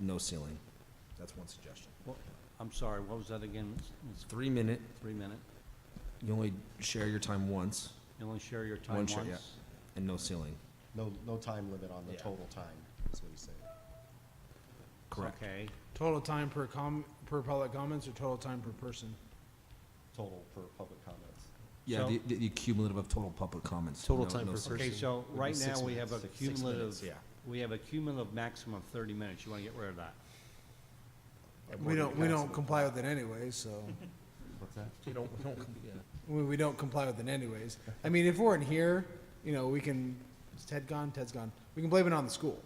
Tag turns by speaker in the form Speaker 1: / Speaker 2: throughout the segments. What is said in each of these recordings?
Speaker 1: no ceiling. That's one suggestion.
Speaker 2: Well, I'm sorry, what was that again? It's- it's
Speaker 1: Three minute,
Speaker 2: Three minute?
Speaker 1: you only share your time once
Speaker 2: You only share your
Speaker 1: One
Speaker 2: time
Speaker 1: share, yeah.
Speaker 2: once?
Speaker 1: and no ceiling.
Speaker 3: No, no time limit on the
Speaker 1: Yeah.
Speaker 3: total time, is what he's saying.
Speaker 1: Correct.
Speaker 2: Okay,
Speaker 4: Total time per com, per public comments or total time per person?
Speaker 3: Total per public comments.
Speaker 1: Yeah,
Speaker 2: So-
Speaker 1: the, the- the cumulative of total public comments.
Speaker 5: Total
Speaker 1: no-
Speaker 5: time
Speaker 1: no
Speaker 5: per
Speaker 1: ceiling.
Speaker 2: okay,
Speaker 5: Person
Speaker 2: so
Speaker 3: would be
Speaker 2: right
Speaker 3: six
Speaker 2: now, we
Speaker 3: minutes,
Speaker 2: have a
Speaker 3: six- six minutes,
Speaker 2: cumulative,
Speaker 1: yeah.
Speaker 2: we have a cumulative maximum of thirty minutes. You wanna get rid of that?
Speaker 4: We don't, we don't comply with it anyways, so,
Speaker 3: What's that?
Speaker 4: we, we don't comply with it anyways. I mean, if we're in here, you know, we can, is Ted gone? Ted's gone. We can blame it on the school.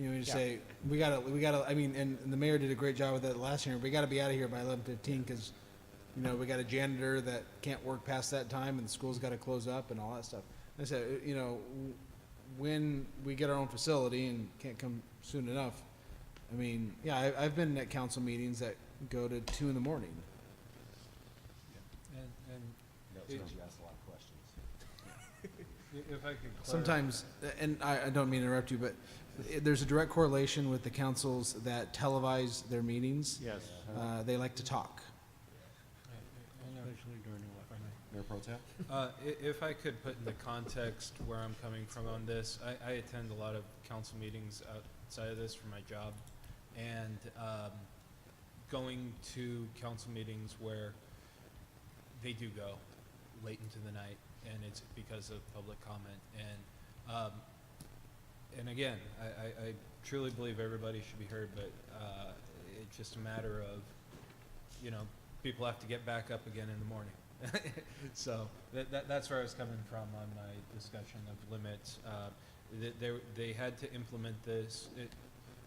Speaker 4: You know, you say, we gotta, we gotta, I mean, and, and the mayor did a great job with that last year, we gotta be out of here by eleven fifteen, cause, you know, we got a janitor that can't work past that time, and the school's gotta close up and all that stuff. I said, uh, you know, w- when we get our own facility and can't come soon enough, I mean, yeah, I, I've been at council meetings that go to two in the morning.
Speaker 6: And, and
Speaker 3: That's when you ask a lot of questions.
Speaker 6: i- if I could clarify,
Speaker 4: Sometimes, and I, I don't mean to interrupt you, but i- there's a direct correlation with the councils that televise their meetings.
Speaker 2: Yes.
Speaker 4: Uh, they like to talk.
Speaker 2: Especially during the election.
Speaker 3: Mayor Pro Tem?
Speaker 6: uh, i- if I could put the context where I'm coming from on this, I, I attend a lot of council meetings outside of this for my job. And, um, going to council meetings where they do go late into the night and it's because of public comment and, um, and again, I, I, I truly believe everybody should be heard, but, uh, it's just a matter of, you know, people have to get back up again in the morning. so that, that, that's where I was coming from on my discussion of limits. Uh, th they, they had to implement this. It,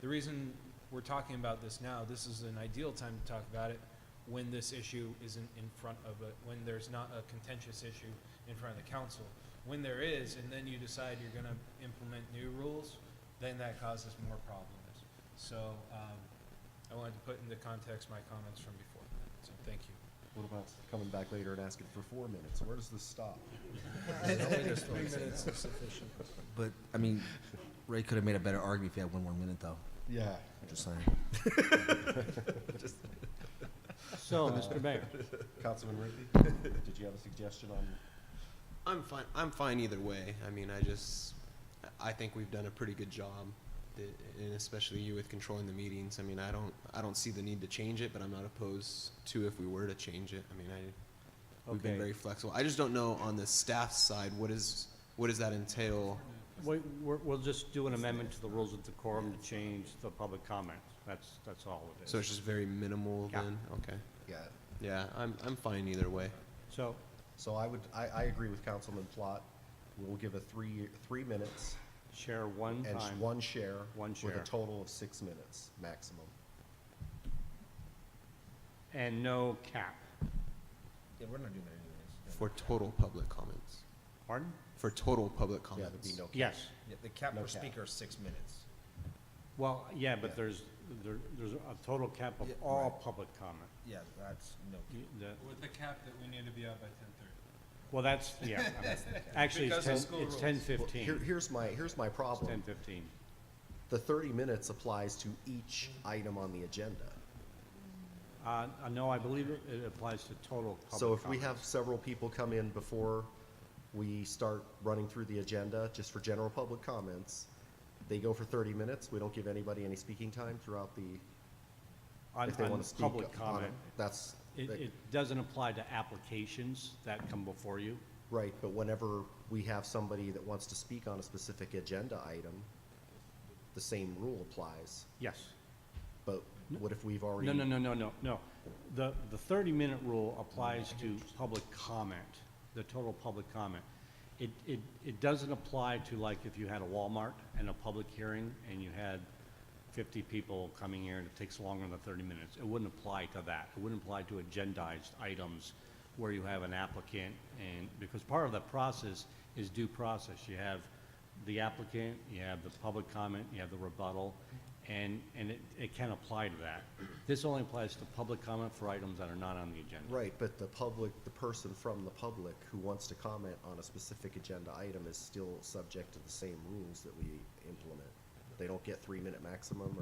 Speaker 6: the reason we're talking about this now, this is an ideal time to talk about it when this issue isn't in front of a, when there's not a contentious issue in front of the council. When there is, and then you decide you're gonna implement new rules, then that causes more problems. So, um, I wanted to put into context my comments from before, so thank you.
Speaker 3: What about coming back later and asking for four minutes? Where does this stop?
Speaker 1: But, I mean, Ray could have made a better argument if he had one more minute, though.
Speaker 3: Yeah.
Speaker 1: Just saying.
Speaker 2: So, Mr. Mayor,
Speaker 3: Councilman Rigby, did you have a suggestion on,
Speaker 7: I'm fine. I'm fine either way. I mean, I just, I think we've done a pretty good job, th- and especially you with controlling the meetings. I mean, I don't, I don't see the need to change it, but I'm not opposed to if we were to change it. I mean, I, we've been
Speaker 2: Okay.
Speaker 7: very flexible. I just don't know on the staff side what is, what does that entail?
Speaker 2: we, we're, we'll just do an amendment to the rules of decorum to change the public comments. That's, that's all it
Speaker 7: So
Speaker 2: is.
Speaker 7: it's just very minimal
Speaker 2: Yeah.
Speaker 7: then. Okay.
Speaker 3: yeah.
Speaker 7: Yeah, I'm, I'm fine either way.
Speaker 2: So,
Speaker 3: So I would, I, I agree with Councilman Plott. We'll give a three, three minutes
Speaker 2: share one
Speaker 3: and sh-
Speaker 2: time.
Speaker 3: one share.
Speaker 2: One
Speaker 3: With
Speaker 2: share.
Speaker 3: a total of six minutes maximum.
Speaker 2: And no cap.
Speaker 1: Yeah, we're not doing that
Speaker 7: For total public comments.
Speaker 2: Pardon?
Speaker 7: For total public
Speaker 3: Yeah, there'd
Speaker 7: comments.
Speaker 3: be no. cap.
Speaker 2: Yes.
Speaker 1: The cap
Speaker 3: No
Speaker 1: per
Speaker 3: cap.
Speaker 1: speaker is six minutes.
Speaker 2: Well, yeah,
Speaker 3: Yeah.
Speaker 2: but there's, there, there's a total cap of
Speaker 1: Yeah,
Speaker 2: all public comment.
Speaker 1: Yeah, that's no.
Speaker 2: You- the-
Speaker 6: With the cap that we need to be out by ten thirty.
Speaker 2: Well, that's, yeah, I mean, actually, it's
Speaker 6: Because of
Speaker 2: ten,
Speaker 6: school
Speaker 2: it's
Speaker 6: rules.
Speaker 2: ten
Speaker 3: Well, Here,
Speaker 2: fifteen,
Speaker 3: here's my, here's my problem.
Speaker 2: ten fifteen.
Speaker 3: The 30 minutes applies to each item on the agenda.
Speaker 2: Uh, uh, no, I believe it, it applies to total public
Speaker 3: So if we
Speaker 2: comment.
Speaker 3: have several people come in before we start running through the agenda, just for general public comments, they go for 30 minutes, we don't give anybody any speaking time throughout the,
Speaker 2: On-
Speaker 3: if they
Speaker 2: on
Speaker 3: want to speak.
Speaker 2: Public
Speaker 3: on
Speaker 2: comment,
Speaker 3: it. That's,
Speaker 2: it,
Speaker 3: that-
Speaker 2: it doesn't apply to applications that come before you.
Speaker 3: right, but whenever we have somebody that wants to speak on a specific agenda item, the same rule applies.
Speaker 2: Yes.
Speaker 3: But what if we've already?
Speaker 2: No, no, no, no, no, no. The, the thirty-minute rule applies to public comment, the total public comment. It, it, it doesn't apply to like if you had a Walmart and a public hearing and you had fifty people coming here and it takes longer than thirty minutes. It wouldn't apply to that. It wouldn't apply to agendized items where you have an applicant and, because part of the process is due process. You have the applicant, you have the public comment, you have the rebuttal, and, and it, it can apply to that. This only applies to public comment for items that are not on the agenda.
Speaker 3: Right, but the public, the person from the public who wants to comment on a specific agenda item is still subject to the same rules that we implement. They don't get three-minute maximum or